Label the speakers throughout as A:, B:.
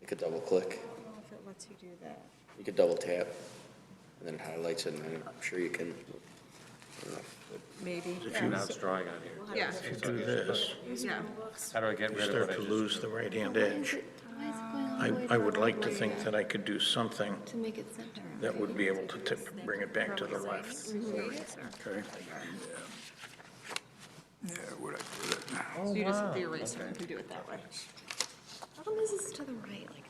A: You could double click,
B: I don't know if it lets you do that.
A: you could double tap, and then it highlights it, and then I'm sure you can.
B: Maybe.
C: If you're not drawing on here.
B: Yeah,
C: So
D: do this,
B: yeah.
C: How do I get
D: you
C: rid of
D: start
C: what I
D: to
C: just?
D: lose the right-hand edge. I, I would like to think that I could do something
E: To make it center.
D: that would be able to tip, bring it back to the left. Okay?
F: Yeah, where'd I put it?
B: So you just the eraser, you do it that way.
E: Problem is, it's to the right like that.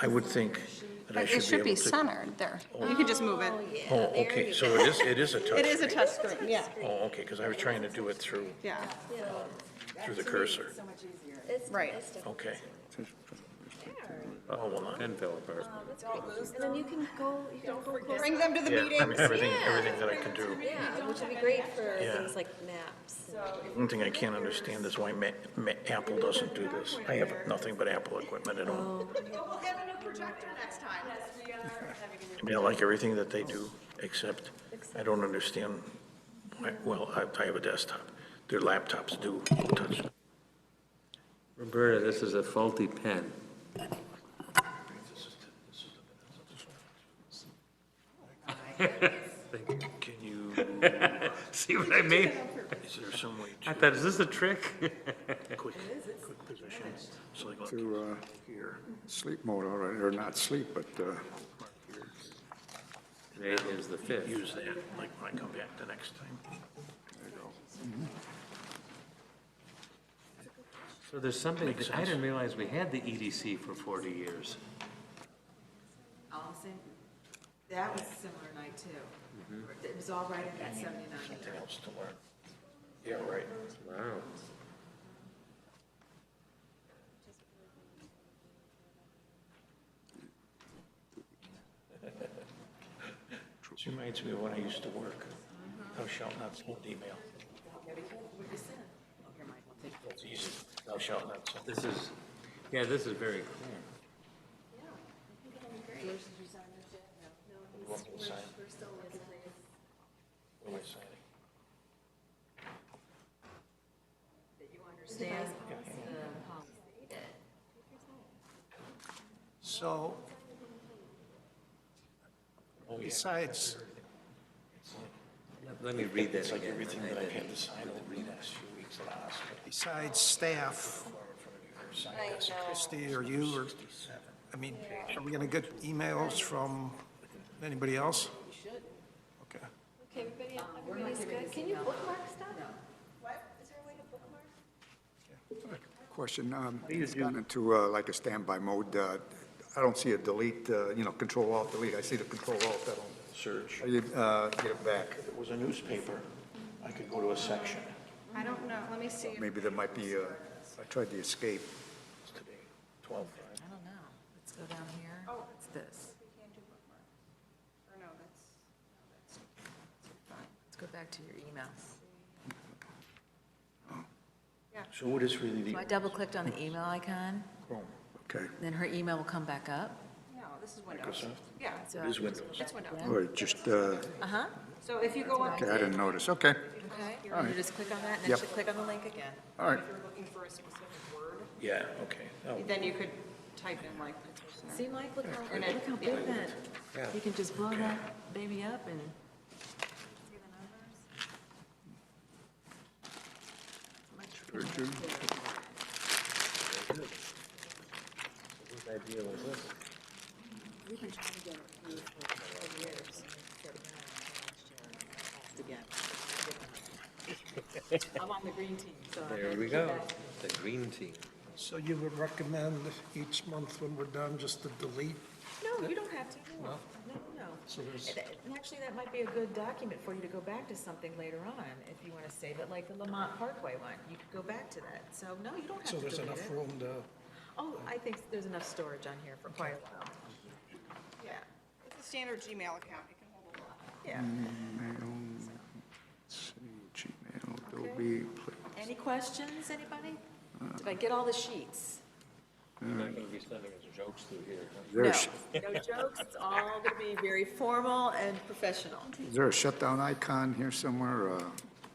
D: I would think that I
G: But it
D: should
G: should
D: be
G: be
D: able to.
G: centered there.
B: You can just move it.
D: Oh, okay, so it is, it is a
B: It is a
D: touchscreen.
B: touchscreen, yeah,
D: Oh, okay, because I was trying to do it through,
B: yeah.
D: through the cursor.
E: It's-
B: Right.
E: it's different.
D: Okay. Oh, well, not.
C: Envelope.
E: And then you can go, you can go close.
B: Bring them to the
D: Yeah, I
B: meeting.
D: mean, everything, everything that I can do.
E: Yeah, which would be great for
D: Yeah.
E: things like maps.
D: One thing I can't understand is why Ma, Ma, Apple doesn't do this. I have nothing but Apple equipment at home.
E: Oh.
B: We'll have a new projector next time.
D: I mean, I like everything that they do, except I don't understand, why- well, I, I have a desktop. Their laptops do touch.
C: Roberta, this is a faulty pen.
D: Can you,
C: See what I mean?
D: is there some way
C: I
D: to
C: thought, is this a trick?
D: quick, quick position? So like, look,
F: To, uh, sleep mode already, or not sleep, but, uh,
C: Today is the fifth.
D: use that, like when I come back the next time.
C: So there's something, that- I didn't realize we had the EDC for 40 years.
H: Allison, that was a similar night too. It was all right in that seventy-nine.
D: Anything else to learn? Yeah, right.
C: Wow.
D: This reminds me of when I used to work. Thou shalt not send email. That's easy. Thou shalt not send.
C: This is, yeah, this is very clear.
D: You want me to sign? What am I signing?
I: So, besides,
C: Let me read that
D: It's like
C: again.
D: everything that I've had to sign over the last few weeks at the hospital.
I: besides staff, Christie or you, or, I mean, are we gonna get emails from anybody else? Okay.
E: Okay, everybody, everybody's good. Can you bookmark stuff? What? Is there a way to bookmark?
F: Question, um, it's gone into uh, like a standby mode. uh, I don't see a delete, uh, you know, control alt delete. I see the control alt, I don't,
D: Search.
F: I get, uh, get it back.
D: If it was a newspaper, I could go to a section.
B: I don't know, let me see. if-
F: Maybe there might be, uh, I tried the escape.
D: It's today, twelve five.
H: I don't know. Let's go down here. Oh. It's this.
B: or no, that's-
H: Fine. Let's go back to your emails.
D: So what is really the
H: So I double clicked on the email icon,
D: Chrome?
F: Okay.
H: then her email will come back up.
B: No, this is Windows. Yeah,
H: So
D: It is Windows.
B: it's Windows.
F: All right, just, uh,
H: Uh-huh,
B: So if you go up,
F: okay, I didn't notice. Okay,
H: okay. You just click on that and then
F: Yep.
H: she'll click on the link again.
F: all right.
B: if you're looking for a specific word,
D: Yeah, okay. Oh,
B: then you could type in like.
H: See, Mike, look how,
B: And it-
H: look how big that, you can just blow that baby up and.
B: I'm on the green team, so.
C: There we go, the green team.
I: So you would recommend each month when we're done, just to delete?
H: No, you don't have to, no, no, no.
I: So there's-
H: And- and Actually, that might be a good document for you to go back to something later on, if you want to save it, like the Lamont Parkway one, you could go back to that. So, no, you don't have
I: So
H: to delete
I: there's enough
H: it.
I: room to,
H: Oh, I think there's enough storage on here for quite a while.
B: Yeah, it's a standard Gmail account, it can hold a lot.
H: Yeah.
I: Mm-hmm.
F: Gmail, let's see, Gmail, Adobe, Play-
H: Any questions, anybody? Did I get all the sheets?
C: You're not going to be sending us jokes through here, huh?
F: Is there a sh-
H: No jokes, it's all going to be very formal and professional.
F: is there a shutdown icon here somewhere? Uh,